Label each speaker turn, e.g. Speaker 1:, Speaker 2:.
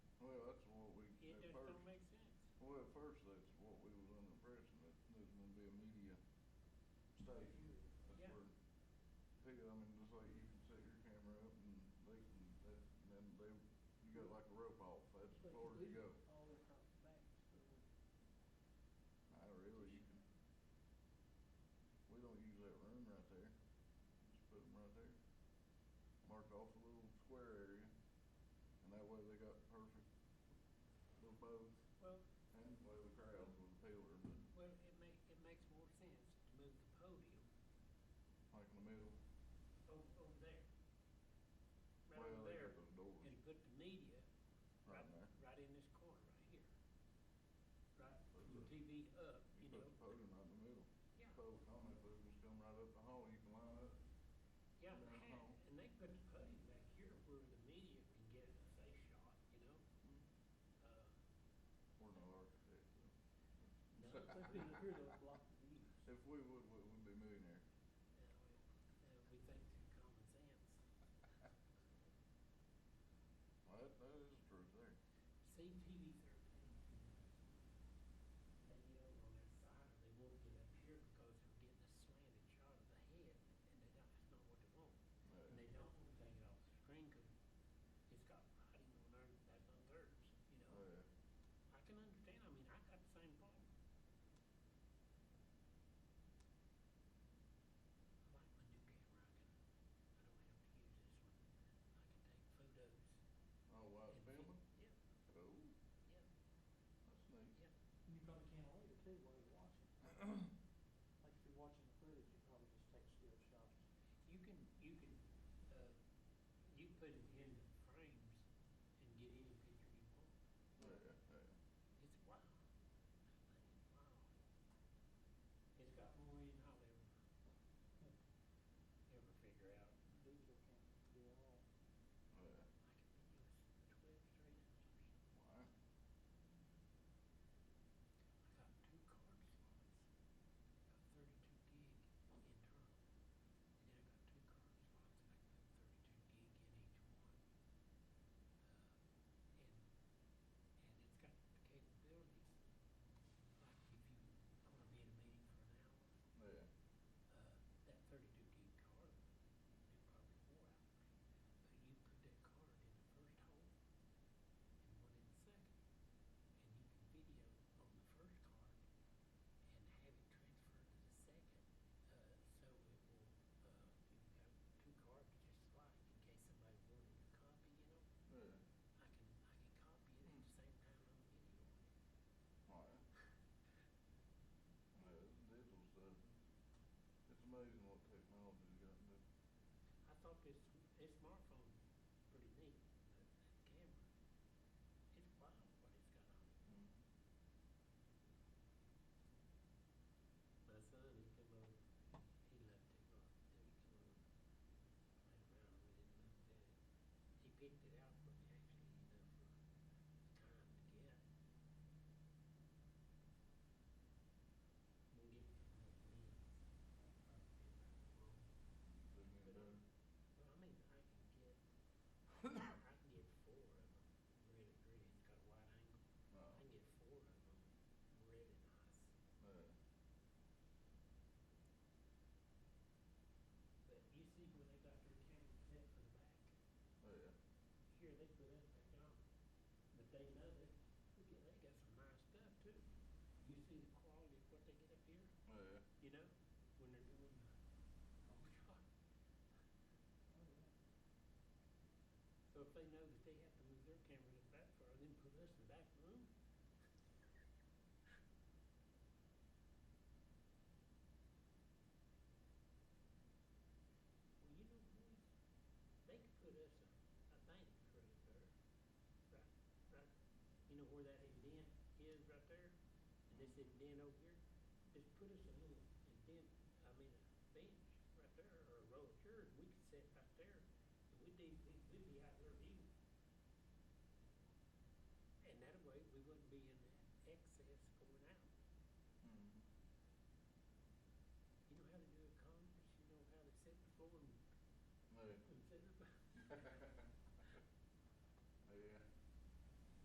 Speaker 1: well, first, that's what we was under impression, that there's gonna be a media station. That's
Speaker 2: Yeah.
Speaker 1: where, people, I mean, just like you can set your camera up and they can, that, and then they, you got like a rope off, that's as
Speaker 2: But
Speaker 1: far as you
Speaker 2: we-
Speaker 1: go.
Speaker 2: All across the back, so.
Speaker 1: I really, you can, we don't use that room right there, just put them right there. Mark off a little square area, and that way they got perfect little bows,
Speaker 2: Well,
Speaker 1: and that way the crowds with the pillar, but
Speaker 2: well, it ma- it makes more sense to move the podium
Speaker 1: like in the middle,
Speaker 2: over, over there. Right
Speaker 1: well,
Speaker 2: over
Speaker 1: they
Speaker 2: there,
Speaker 1: got those doors
Speaker 2: and put the media
Speaker 1: right
Speaker 2: right,
Speaker 1: there.
Speaker 2: right in this corner, right here. Right,
Speaker 1: Put the-
Speaker 2: the TV up,
Speaker 1: You
Speaker 2: you
Speaker 1: put
Speaker 2: know,
Speaker 1: the podium right in the middle.
Speaker 2: Yeah.
Speaker 1: Folks on it, they just come right up the hall, you can line up,
Speaker 2: yeah,
Speaker 1: down the hall.
Speaker 2: and they put the podium back here where the media can get a face shot, you know? Uh,
Speaker 1: we're no architects, so.
Speaker 2: No, it could be here to block the views.
Speaker 1: If we would, we would be millionaires.
Speaker 2: Now, now, we think through common sense.
Speaker 1: Well, that, that is the truth there.
Speaker 2: See TV thirteen. They get over on that side, and they won't get up here because they're getting a slanted shot of the head, and they don't, that's not what they want. And
Speaker 1: Uh,
Speaker 2: they don't want to take it off the screen, cause it's got writing on there, that's on theirs, you know?
Speaker 1: uh,
Speaker 2: I can understand, I mean, I got the same problem. I like my new camera, I can, I don't have to use this one, I can take photos.
Speaker 1: Oh, wow,
Speaker 2: and
Speaker 1: filming?
Speaker 2: vi- Yeah,
Speaker 1: Oh,
Speaker 2: yeah,
Speaker 1: that's neat.
Speaker 2: yeah.
Speaker 3: And you probably can't later too while you're watching. Like if you're watching the footage, you probably just take still shots.
Speaker 2: You can, you can, uh, you put it in the frames and get any picture you want.
Speaker 1: Yeah, yeah.
Speaker 2: It's wild. I think it's wild. It's got more in than I'll ever, ever figure out.
Speaker 3: Digital camera, do it all. oh,
Speaker 1: Uh,
Speaker 2: I can video s- twelve straight hours.
Speaker 1: wow.
Speaker 2: I got two card slots. Got thirty-two gig internal. And then I got two card slots and I can put thirty-two gig in each one. Uh, and, and it's got the capability, like if you, I'm gonna be in a meeting for an hour,
Speaker 1: Yeah,
Speaker 2: uh, that thirty-two gig card, in probably four hours. But you put that card in the first hole and one in the second, and you can video on
Speaker 1: yeah. Wow. Yeah, this
Speaker 2: the first card and have it transferred to the second. Uh, so it will, uh, if uh, you got two cards, just like in case somebody wanted a copy, you know, I can, I can copy it at the same time I'm videoing it.
Speaker 1: digital stuff, it's amazing what technology's gotten to.
Speaker 2: I thought this, this smartphone pretty neat, but that camera, it's wild what it's got on it. My son, he come over, he loved it, well, then he come over, played around with it, looked at it. He picked it out for me actually, you know, for the time to get.
Speaker 1: They get better.
Speaker 2: We'll get it from the lens. But, um, Well, I mean, I can get, I can get four of them, red and green, it's got a wide angle,
Speaker 1: No,
Speaker 2: I can get four of them, red and nice.
Speaker 1: yeah.
Speaker 2: But you see when they got their camera set for the back,
Speaker 1: Yeah.
Speaker 2: here they put it back on, but they love it, look at, they got some nice stuff too. You see the quality of what they get up here,
Speaker 1: Yeah.
Speaker 2: you know, when they're doing the, oh God.
Speaker 3: Oh, yeah.
Speaker 2: So if they know that they have to move their camera to the back far, then put us in the back room, Well, you know, boys, they could put us a, a bank right there, right, right, you know where that indent is right there? And this indent over here, just put us a little indent, I mean, a bench right there, or a row of chairs, we could sit right there, and we'd be, we'd- we'd be out there eating. And that way, we wouldn't be in that excess going out.
Speaker 1: Mhm.
Speaker 2: You know how to do a conference, you know how to set the floor and,
Speaker 1: Yeah.
Speaker 2: and set up. a-